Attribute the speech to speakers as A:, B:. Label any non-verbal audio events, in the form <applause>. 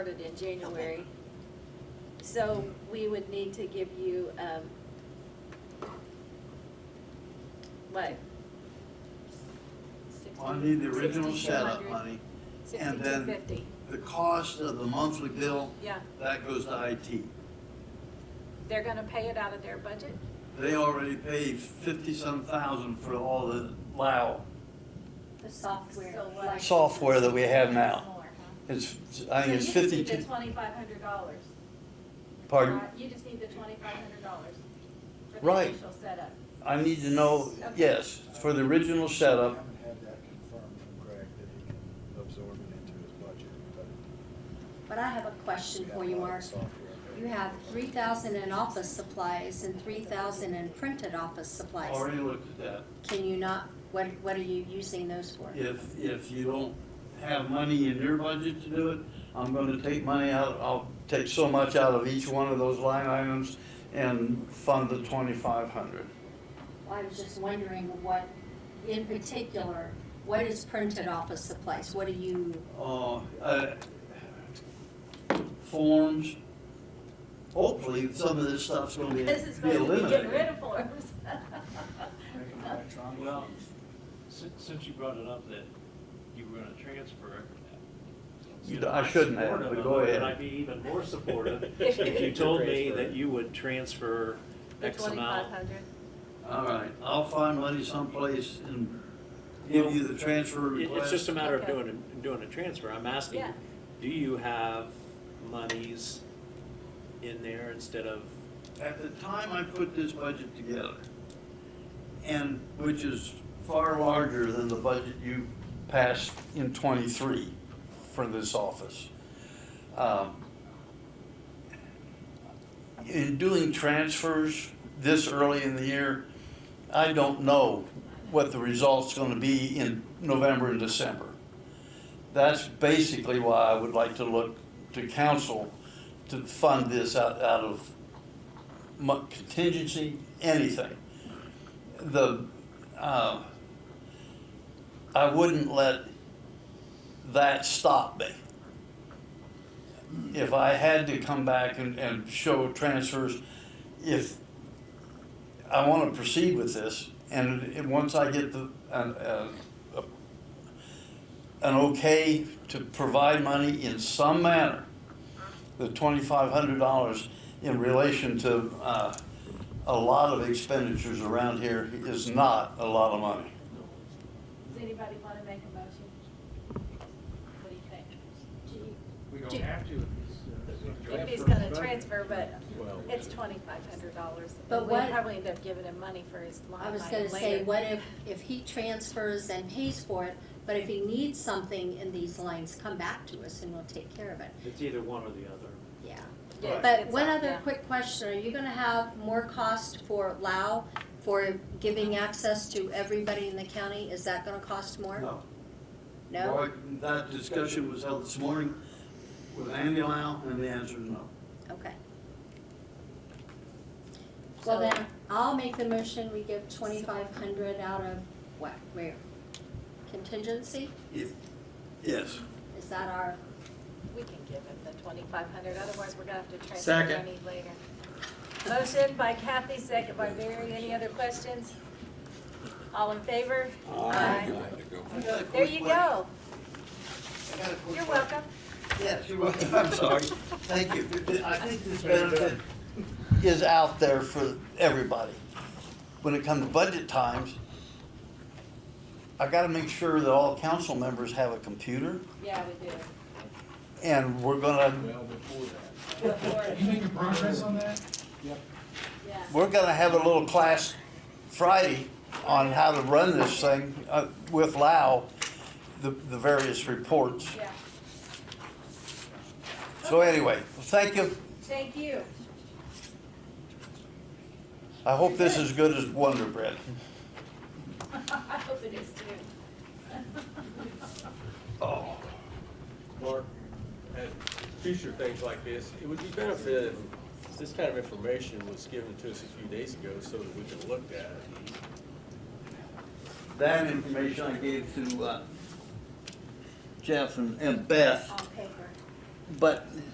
A: started in January. So we would need to give you, um, what?
B: I need the original
A: 60,
B: setup
A: 100,
B: money, and then-
A: 6250,
B: the cost of the monthly bill,
A: yeah.
B: that goes to IT.
A: They're gonna pay it out of their budget?
B: They already paid fifty-some thousand for all the Lao
C: The software. license.
B: software that we have now.
C: More, huh?
B: It's, I think
C: So you
B: it's
C: just need
B: fifty-two,
C: the twenty-five hundred dollars.
B: pardon?
C: You just need the twenty-five hundred dollars for the
B: Right.
C: initial setup.
B: I need to know, yes, for the original
D: I
B: setup,
D: haven't had that confirmed from Greg that he can absorb it into his budget, but.
E: But I have a
D: we
E: question
D: have
E: for you,
D: a lot of
E: Mark.
D: software.
E: You have three thousand in office supplies and three thousand in printed office supplies.
B: already looked at that.
E: Can you not, what, what are you using those for?
B: If, if you don't have money in your budget to do it, I'm gonna take money out, I'll take so much out of each one of those line items and fund the twenty-five hundred.
E: Well, I was just wondering what, in particular, what is printed office supplies? What do you,
B: uh, uh, forms. Hopefully, some of this stuff's gonna be be
C: This is supposed to be getting rid
B: eliminated.
C: of <laughs> forms.
D: Make it electronic.
F: Well, since, since you brought it up that you were gonna transfer.
B: You
F: know,
B: I
F: I'm
B: shouldn't have,
F: supportive
B: but
F: of
B: go
F: it,
B: ahead.
F: And I'd be even
B: <laughs>
F: more supportive <laughs> if you told me that you would transfer
A: The
F: X
A: twenty-five
F: amount.
A: hundred?
B: All right, I'll find money someplace and give you the transfer
F: It- It's just
B: request.
F: a matter of
A: Okay.
F: doing, a- doing a transfer. I'm asking,
A: Yeah.
F: do you have monies in there instead of,
B: At the time I put this budget together, and which is far larger than the budget you passed in twenty-three for this office. Um, In doing transfers this early in the year, I don't know what the result's gonna be in November and December. That's basically why I would like to look to council to fund this out, out of mu- contingency, anything. The, uh, I wouldn't let that stop me. If I had to come back and, and show transfers, if I want to proceed with this, and, it- it- once I get the, an, uh, an okay to provide money in some manner, the twenty-five hundred dollars in relation to, uh, a lot of expenditures around here is not a lot of money.
C: Does anybody want to make a motion? What do you think?
G: We
A: Do-
G: don't have to. if it's, uh,
A: If he's
G: transfer
A: gonna
G: budget.
A: transfer, but
D: Well,
A: it's twenty-five hundred dollars.
E: But
A: We'll
E: what-
A: probably end up giving him money for his line
E: I
A: item
E: was
A: later.
E: gonna say, what if, if he transfers and pays for it, but if he needs something in these lines, come back to us and we'll take care of it,
F: it's either one or the other.
E: yeah.
A: Yeah,
E: But
A: it's
E: one
A: up,
E: other
A: yeah.
E: quick question, are you gonna have more cost for Lao for giving access to everybody in the county? Is that gonna cost more? No?
B: Well, That discussion was held this morning with Andy Lau, and the answer is no.
E: Okay. Well
A: So-
E: then, I'll make the motion, we give twenty-five hundred out of what, where? Contingency?
B: If, yes.
E: Is that our,
A: We can give him the twenty-five hundred, otherwise we're gonna have to transfer
G: Second.
A: money later. Motion by Kathy, second by Barry. Any other questions? All in favor? Aye.
B: I got a
A: There
B: quick
A: you
B: question.
A: go.
B: I got a quick
A: You're
B: question.
A: welcome.
B: Yes, you're welcome. I'm sorry. Thank you. I think this benefit is out there for everybody. When it comes to budget times, I gotta make sure that all council members have a computer,
A: Yeah, we do.
B: and we're gonna,
D: well before that.
G: You making progress on that?
A: Yeah.
B: we're gonna have a little class Friday on how to run this thing uh, with Lau, the, the various reports.
A: Yeah.
B: So anyway, thank you.
A: Thank you.
B: I hope this is good as Wonder Bread.
C: I hope it is too.
B: Oh.
H: Mark, at future things like this, it would be better if this kind of information was given to us a few days ago so that we can look at it.
B: That information I gave to uh, Jeff and and Beth
E: on paper?
B: but